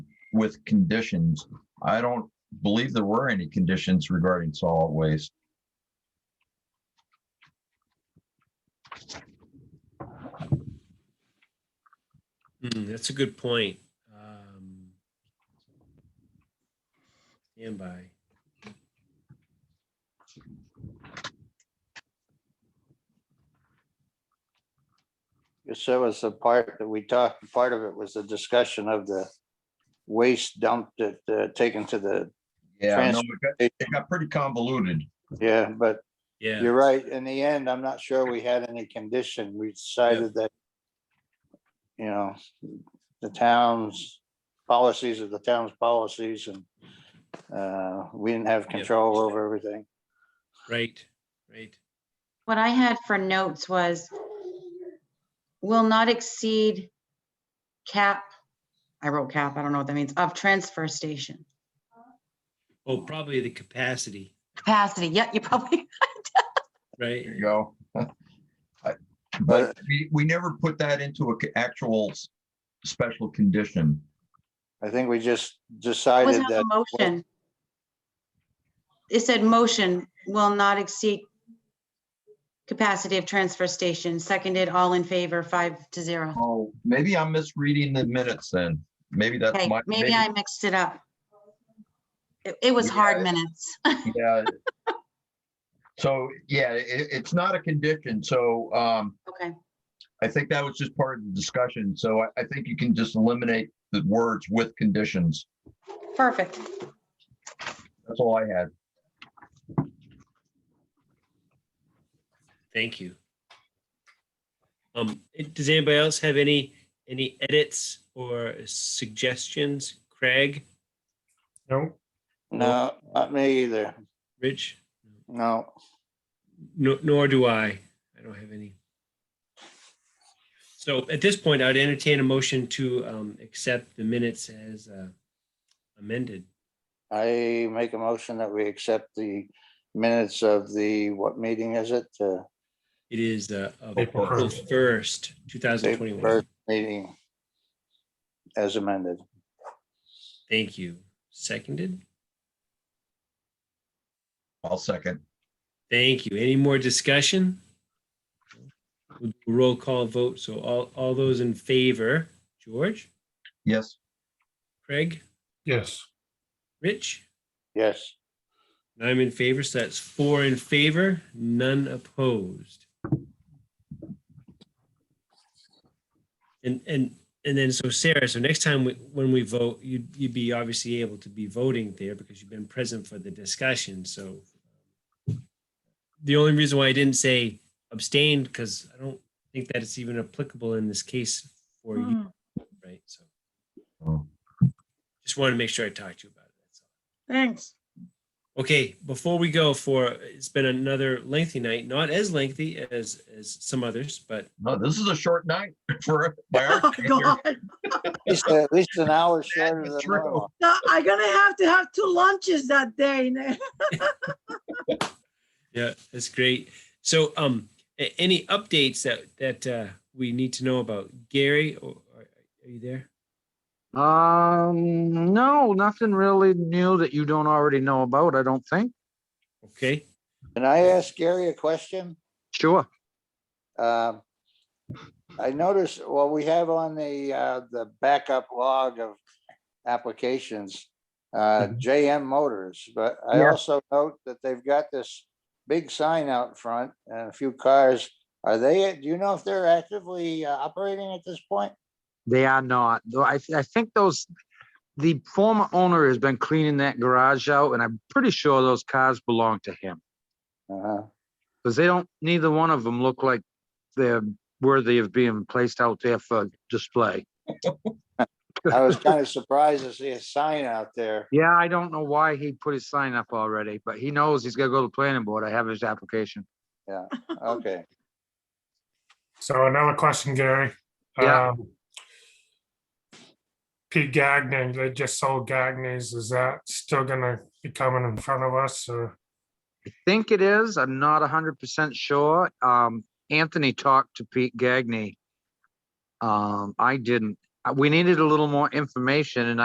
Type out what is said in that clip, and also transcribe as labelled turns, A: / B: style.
A: with conditions. I don't believe there were any conditions regarding solid waste.
B: Mm, that's a good point. Um, stand by.
C: Because there was a part that we talked, part of it was a discussion of the waste dumped that, uh, taken to the,
A: Yeah, I know, it got- it got pretty convoluted.
C: yeah, but
B: Yeah.
C: you're right. In the end, I'm not sure we had any condition. We decided that, you know, the town's policies are the town's policies and uh, we didn't have control over everything.
B: Right. Right.
D: What I had for notes was will not exceed cap, I wrote cap, I don't know what that means, of transfer station.
B: Oh, probably the capacity.
D: Capacity, yeah, you probably,
B: Right.
A: There you go. I- But we, we never put that into a c- actual s- special condition.
C: I think we just
D: it was
C: decided
D: not
C: that,
D: a motion. It said motion will not exceed capacity of transfer station, seconded, all in favor, five to zero.
A: Oh, maybe I'm misreading the minutes then. Maybe that's
D: Okay,
A: my.
D: maybe I mixed it up. It, it was hard
A: Yeah.
D: minutes.
A: Yeah. So, yeah, it, it's not a condition, so, um,
D: Okay,
A: I think that was just part of the discussion, so I, I think you can just eliminate the words with conditions.
D: perfect.
A: That's all I had.
B: Thank you. Um, it- does anybody else have any, any edits or suggestions? Craig,
E: No,
C: no, not me either.
B: Rich?
C: No,
B: No, nor do I. I don't have any. So at this point, I'd entertain a motion to um, accept the minutes as uh, amended.
C: I make a motion that we accept the minutes of the, what meeting is it? The
B: It is uh, of
E: April
B: April
E: first.
B: first, two thousand twenty-one.
C: first meeting as amended.
B: Thank you. Seconded.
A: I'll second.
B: Thank you. Any more discussion? We'll do a Roll call vote. So all, all those in favor, George,
A: Yes,
B: Craig,
E: yes,
B: Rich?
C: Yes,
B: And I'm in favor, so that's four in favor, none opposed. And, and, and then, so Sarah, so next time we- when we vote, you'd, you'd be obviously able to be voting there because you've been present for the discussion, so. The only reason why I didn't say abstained, because I don't think that it's even applicable in this case for you,
F: Mm,
B: right? So
A: Oh.
B: just wanted to make sure I talked to you about it, that's all.
D: Thanks.
B: Okay, before we go for, it's been another lengthy night, not as lengthy as, as some others, but
A: no, this is a short night for, by
F: Oh,
A: our standards.
C: at least, at least an hour shorter
A: is
C: than
A: true.
C: normal.
F: No, I'm gonna have to have two lunches that day. Nick.
B: yeah, it's great. So, um, a- any updates that, that, uh, we need to know about? Gary, or, or- are you there?
G: Um, no, nothing really new that you don't already know about, I don't think.
B: Okay,
C: Can I ask Gary a question?
G: Sure.
C: Um, I noticed, well, we have on the, uh, the backup log of applications, uh, JM Motors, but I
G: Yeah.
C: also note that they've got this big sign out front and a few cars. Are they, do you know if they're actively uh, operating at this point?
G: They are not, though I, I think those, the former owner has been cleaning that garage out and I'm pretty sure those cars belong to him.
C: Uh-huh.
G: Because they don't, neither one of them look like they're worthy of being placed out there for display.
C: I was kind of surprised to see a sign out there.
G: Yeah, I don't know why he put his sign up already, but he knows he's gotta go to the planning board. I have his application.
C: Okay.
E: so another question, Gary.
G: Yeah.
E: Um, Pete Gagnon, they just sold Gagnon's, is that still gonna be coming in front of us or?
G: think it is. I'm not hundred percent sure. Um, Anthony talked to Pete Gagney. Um, I didn't. Uh, We needed a little more information and